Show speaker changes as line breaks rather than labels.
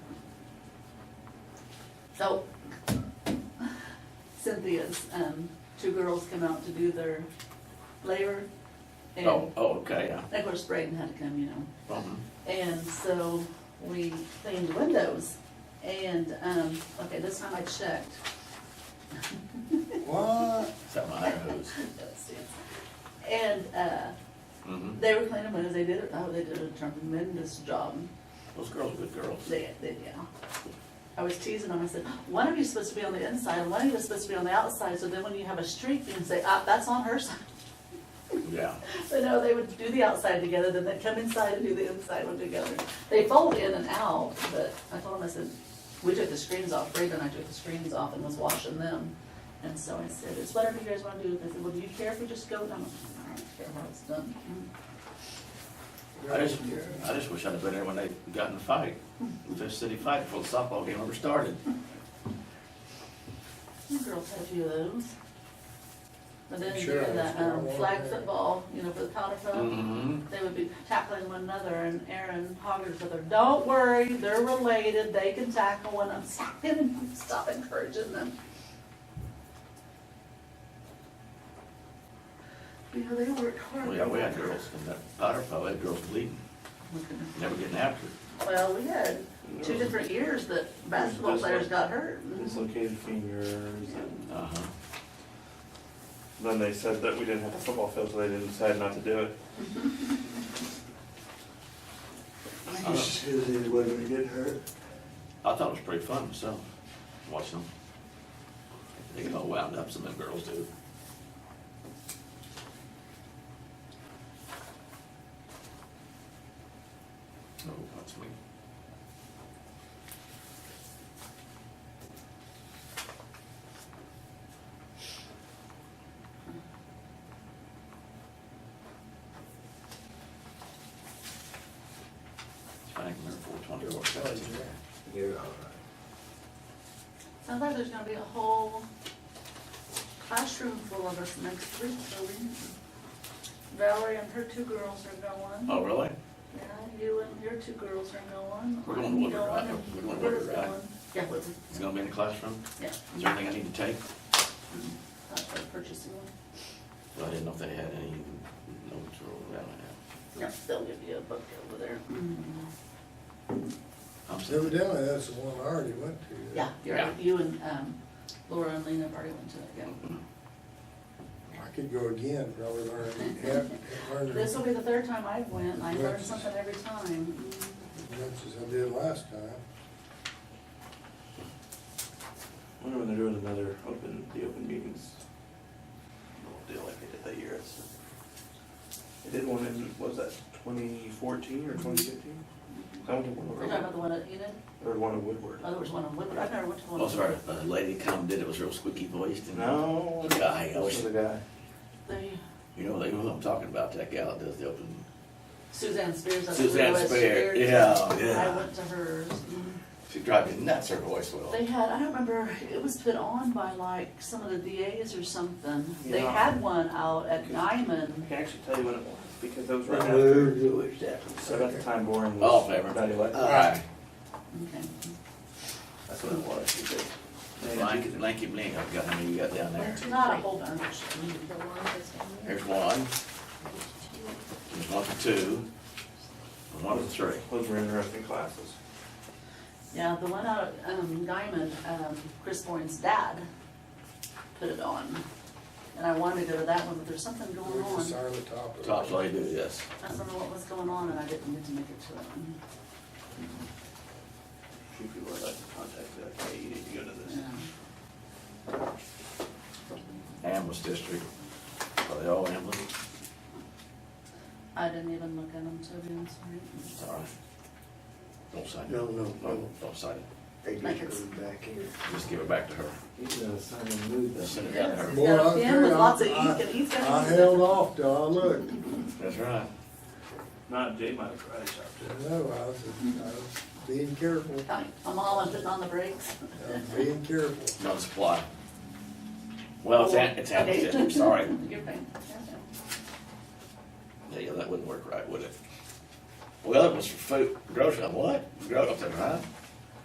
So Cynthia's, um, two girls come out to do their labor. And
Oh, oh, okay, yeah.
of course Braden had to come, you know.
Mhm.
And so we cleaned the windows and, um, okay, this time I checked.
What?
Something I knows.
And, uh,
Mhm.
they were cleaning windows, they did, oh, they did a tremendous job.
Those girls are good girls.
They, they, yeah. I was teasing them, I said, one of you's supposed to be on the inside, and one of you's supposed to be on the outside, so then when you have a streak, you can say, ah, that's on her side.
Yeah.
But no, they would do the outside together, then they'd come inside and do the inside one together. They fold in and out, but I told them, I said, we took the screens off, Brenda and I took the screens off and was washing them. And so I said, it's whatever you guys wanna do, they said, well, do you care if we just go? And I'm like, I don't care how it's done.
I just, I just wish I'd have been there when they got in the fight, the Fish City fight before the softball game ever started.
You girls had a few of those. But then you
Sure,
do
that's
that,
what I
um,
wanted.
flag football, you know, for the powder puff.
Mm-hmm.
They would be tackling one another and Aaron Hoggers with her, don't worry, they're related, they can tackle one I'm stopping and stop encouraging them. You know, they work hard. Oh
Yeah, we had girls in that powder puff, we had girls bleeding, never getting after it.
Well, we had two different years that basketball players got hurt.
dislocated fingers. and
Uh-huh.
Then they said that we didn't have a football field, so they didn't decide not to do it. Uh,
I just knew they wouldn't get hurt.
I thought it was pretty fun myself, watching them. They get all wound up, some of them girls do. Oh, that's me. I think we're four twenty or seventeen.
You're all right.
Sounds like there's gonna be a whole classroom full of us next week, so we, Valerie and her two girls are going.
Oh, really?
Yeah, you and your two girls are going.
We're going to Woodward,
Going
right?
and
We're going to
Woodward's
Woodward, right?
going. Yeah, Woodward,
It's gonna be in the classroom?
yeah.
Is there anything I need to take?
That's the purchasing one.
Well, I didn't know if they had any notes or whatever.
No, they'll give you a book over there.
I'm sorry.
Evidently, that's the one I already went to.
Yeah, you're,
Yeah.
you and, um, Laura and Lena have already went to that, yeah.
I could go again, probably learn, have, learn
This
as
will be the third time I've went, and I learn
Yes.
something every time. Mm.
much as I did last time.
I wonder when they're doing another open, the open meetings. Little deal like they did that year. It's- They did one in, what was that twenty fourteen or twenty fifteen? I went to one
You're talking about
over,
the one at Enid?
or one in Woodward.
Oh, there was one in Woodward, I've never went to one. in
Oh, sorry,
Woodward.
a lady come did it, was real squeaky voiced and.
No.
Guy, I
This
wish-
was a guy.
They-
You know, they, who I'm talking about, that gal that does the open,
Suzanne Spears. that's
Suzanne
Lewis
Spear, yeah,
I
yeah. Mm-hmm.
went to hers. Mm.
She drives me nuts, her voice will.
They had, I don't remember, it was put on by like some of the DAs or something. They
Yeah.
had one out at Nyman.
I can actually tell you when it was, because it was right after,
Who is that?
so about the time Boring was.
All in favor?
Not elected.
Alright.
Okay.
That's what it was. He said,
Blanky, blanky blank, I've got, how many you got down there?
Not a whole bunch.
The one that's on there.
Here's one, there's one for two, and one for three.
Those were interesting classes.
Yeah, the one out at um, Nyman, um, Chris Bourne's dad put it on. And I wanted to go to that one, but there's something going
We're just
on.
on the top of it.
Tops all you do, yes.
I don't know what was going on and I didn't get to make it to that one.
Few people I'd like to contact, be like, hey, you need to go to this.
Yeah.
Ambles District, are they all Ambles?
I didn't even look at them, to be honest with you.
Sorry. Don't sign it.
No, no,
No,
no.
don't sign it.
They just
Like it's-
moved back here.
Just give it back to her.
He's gonna sign and move
Just
that.
send it down to her.
Boy, I
Now, Tim with
tell
lots of
you,
ink, and he's got
I I
his-
held off till I looked.
That's right.
Not Jay might have karate chopped it.
No, I was, I was being careful,
I'm all, I'm putting on the brakes.
I was being careful.
No supply. Well, it's, Am- it's Ambles
Okay.
District, I'm sorry.
You're fine.
Yeah, yeah, that wouldn't work right, would it? Well, the other one's for food, grocery, what? Grocery, right?